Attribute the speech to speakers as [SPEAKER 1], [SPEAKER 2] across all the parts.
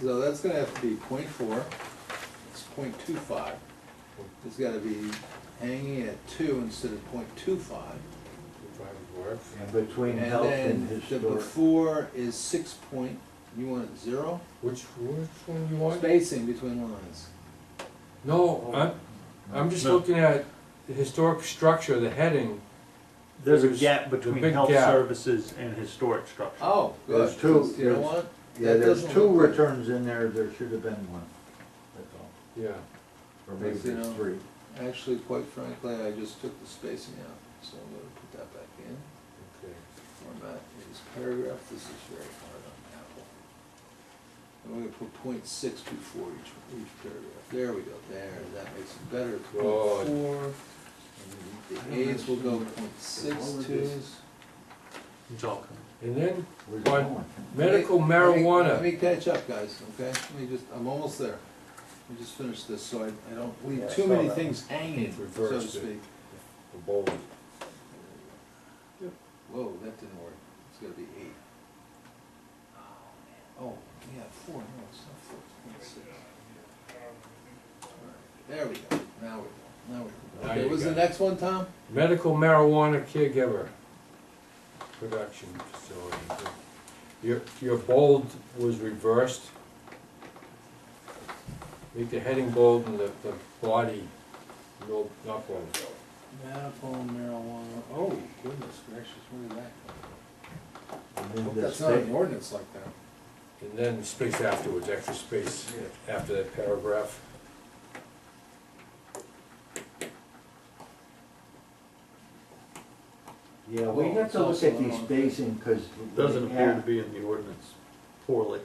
[SPEAKER 1] so that's gonna have to be point four, it's point two five. It's gotta be hanging at two instead of point two five.
[SPEAKER 2] And between
[SPEAKER 1] And
[SPEAKER 2] health
[SPEAKER 1] then
[SPEAKER 2] and
[SPEAKER 1] the
[SPEAKER 2] historic.
[SPEAKER 1] before is six point, you want it zero?
[SPEAKER 3] Which, which one you want?
[SPEAKER 1] Spacing between lines.
[SPEAKER 3] No, I'm, I'm just
[SPEAKER 4] No.
[SPEAKER 3] looking at the historic structure, the heading.
[SPEAKER 4] There's a
[SPEAKER 3] There's
[SPEAKER 4] gap between
[SPEAKER 3] big
[SPEAKER 4] health
[SPEAKER 3] gap.
[SPEAKER 4] services and historic structure.
[SPEAKER 1] Oh, good.
[SPEAKER 2] There's two,
[SPEAKER 1] You know what?
[SPEAKER 2] Yeah,
[SPEAKER 1] That
[SPEAKER 2] there's
[SPEAKER 1] doesn't
[SPEAKER 2] two
[SPEAKER 1] look good.
[SPEAKER 2] returns in there, there should have been one, that's all.
[SPEAKER 3] Yeah.
[SPEAKER 2] Or maybe
[SPEAKER 1] Yes, you
[SPEAKER 2] there's
[SPEAKER 1] know.
[SPEAKER 2] three.
[SPEAKER 1] Actually, quite frankly, I just took the spacing out, so I'm gonna put that back in.
[SPEAKER 3] Okay.
[SPEAKER 1] Format is paragraph, this is very hard on Apple. And we're gonna put point six before each, each paragraph, there we go, there, that makes it better,
[SPEAKER 3] Good.
[SPEAKER 1] point four.
[SPEAKER 2] I
[SPEAKER 1] And
[SPEAKER 2] don't
[SPEAKER 1] The aides will go
[SPEAKER 2] understand.
[SPEAKER 1] point
[SPEAKER 2] All
[SPEAKER 1] six twos.
[SPEAKER 2] of this-
[SPEAKER 4] It's all coming.
[SPEAKER 3] And then
[SPEAKER 2] Where's it
[SPEAKER 3] One.
[SPEAKER 2] going?
[SPEAKER 3] medical
[SPEAKER 1] Let me- let me- Let
[SPEAKER 3] marijuana.
[SPEAKER 1] me catch up, guys, okay, let me just, I'm almost there, let me just finish this, so I, I don't
[SPEAKER 2] Yeah,
[SPEAKER 1] leave
[SPEAKER 2] I
[SPEAKER 1] too
[SPEAKER 2] saw
[SPEAKER 1] many
[SPEAKER 2] that.
[SPEAKER 1] things hanging, so to
[SPEAKER 3] Reversed it.
[SPEAKER 1] speak.
[SPEAKER 3] The bold.
[SPEAKER 1] Whoa, that didn't work. It's gotta be eight. Oh, yeah, four, no, it's not four, it's point six. Alright, There we go, now we go, now we go.
[SPEAKER 3] Now
[SPEAKER 1] Okay,
[SPEAKER 3] you
[SPEAKER 1] was the
[SPEAKER 3] got it.
[SPEAKER 1] next one, Tom?
[SPEAKER 3] Medical marijuana caregiver production facility. Your, your bold was reversed. Make the heading bold and the, the body, no, not bold.
[SPEAKER 1] Medical marijuana, oh goodness gracious, where did that go?
[SPEAKER 2] And then the
[SPEAKER 1] That's not an
[SPEAKER 2] state-
[SPEAKER 1] ordinance like that.
[SPEAKER 3] And then space afterwards, extra space after that paragraph.
[SPEAKER 2] Yeah, we
[SPEAKER 1] Well,
[SPEAKER 2] have
[SPEAKER 1] it's
[SPEAKER 2] to look
[SPEAKER 1] also
[SPEAKER 2] at these
[SPEAKER 1] on-
[SPEAKER 2] spacing, cause.
[SPEAKER 4] Doesn't
[SPEAKER 2] like
[SPEAKER 4] appear to
[SPEAKER 2] at-
[SPEAKER 4] be in the ordinance poorly.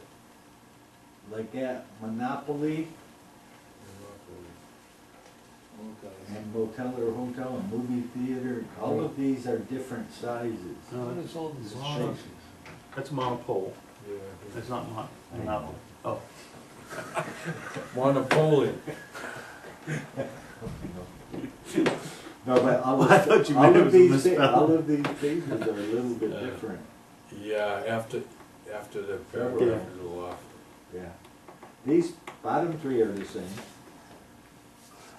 [SPEAKER 2] Like at Monopoly
[SPEAKER 1] Okay.
[SPEAKER 2] and motel or hotel and movie theater, all of these are different sizes.
[SPEAKER 1] What
[SPEAKER 4] No,
[SPEAKER 1] is all this?
[SPEAKER 2] It's
[SPEAKER 1] law?
[SPEAKER 2] shapes.
[SPEAKER 4] that's monopole,
[SPEAKER 3] Yeah.
[SPEAKER 4] that's not mon, monopoly. Oh,
[SPEAKER 3] Monopoly.
[SPEAKER 2] No, but all
[SPEAKER 4] Well, I thought
[SPEAKER 2] of,
[SPEAKER 4] you
[SPEAKER 2] all
[SPEAKER 4] meant it
[SPEAKER 2] of
[SPEAKER 4] was a
[SPEAKER 2] these, thi-
[SPEAKER 4] misspelling. Uh,
[SPEAKER 2] all of these pages are a little bit
[SPEAKER 3] Yeah.
[SPEAKER 2] different,
[SPEAKER 3] Yeah, after, after the paragraph is off.
[SPEAKER 2] yeah. These bottom three are the same.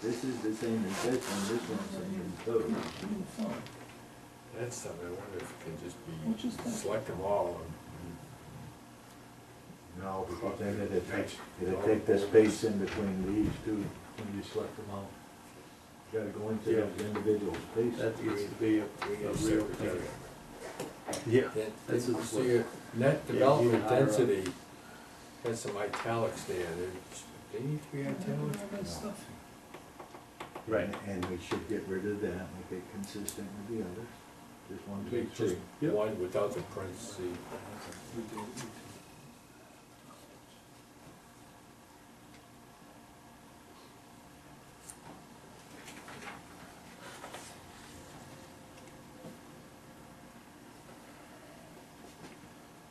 [SPEAKER 2] This is the same as this one, this one's the same as those.
[SPEAKER 3] That's something, I wonder if it can
[SPEAKER 1] Which is
[SPEAKER 3] just be,
[SPEAKER 1] that?
[SPEAKER 3] select them all and.
[SPEAKER 2] No, because then it'd take, it'd take the space in between these two, when you select them all. You gotta go into those individual spaces.
[SPEAKER 4] that needs to be a, a real thing. Yeah. That's a-
[SPEAKER 3] So your net
[SPEAKER 4] Yeah,
[SPEAKER 3] development
[SPEAKER 4] you hire a-
[SPEAKER 3] density has some italics there, they, they need to be italics.
[SPEAKER 4] Right.
[SPEAKER 2] And we should get rid of that, make it consistent with the others. Just one, two,
[SPEAKER 3] Make just
[SPEAKER 2] three.
[SPEAKER 4] Yep.
[SPEAKER 3] one without the parentheses.
[SPEAKER 1] We do, we do.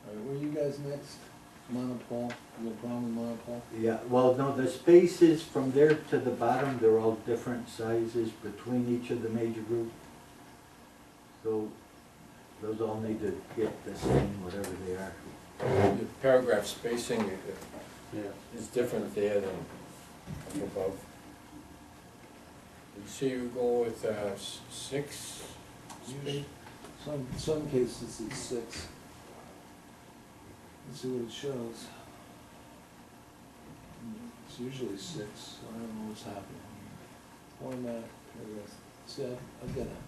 [SPEAKER 1] All right, were you guys next? Monopole, the problem with monopole?
[SPEAKER 2] Yeah, well, no, the spaces from there to the bottom, they're all different sizes between each of the major group. So those all need to get the same, whatever they are.
[SPEAKER 3] The paragraph spacing uh, i-
[SPEAKER 4] Yeah,
[SPEAKER 3] is different there than up above. You see, you go with, uh, s- six,
[SPEAKER 1] Usually- Some, some cases it's six. Let's see what it shows. It's usually six, so I don't know what's happening. Format, paragraph, see, I've, I've got a.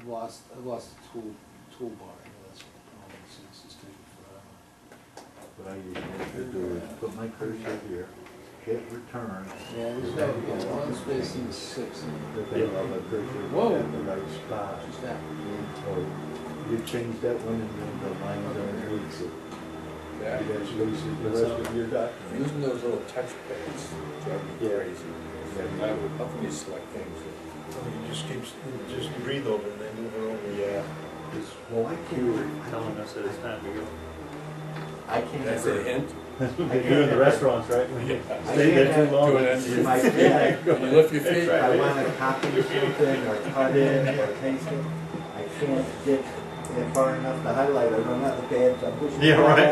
[SPEAKER 1] I've lost, I've lost the tool, toolbar, and that's what the problem is, it's just taking forever.
[SPEAKER 2] What I usually do is put my cursor here, hit return,
[SPEAKER 1] Yeah, there's no, yeah, one spacing is six,
[SPEAKER 2] but then all the cursor
[SPEAKER 1] Whoa.
[SPEAKER 2] at the right spot.
[SPEAKER 1] just that.
[SPEAKER 2] So you change that one and then the lines are loose.
[SPEAKER 3] that,
[SPEAKER 2] That's loose as the rest of your document.
[SPEAKER 3] using those little touch pads, drive me
[SPEAKER 4] Yeah.
[SPEAKER 3] crazy. How how can you select things?
[SPEAKER 5] It just keeps, it just you breathe over it and they move it over.
[SPEAKER 3] Yeah.
[SPEAKER 2] Well, I
[SPEAKER 4] you
[SPEAKER 2] can't,
[SPEAKER 4] were telling us that it's time to go.
[SPEAKER 2] I can't.
[SPEAKER 3] That's a hint?
[SPEAKER 4] They do in the restaurants, right? When you Stay there too long.
[SPEAKER 3] Do it in-
[SPEAKER 2] In my head,
[SPEAKER 3] You lift your feet,
[SPEAKER 2] If I wanna copy something or cut in or paste it, I can't get it far enough to highlight it, I'm not the bad, I'm pushing.
[SPEAKER 4] Yeah, right.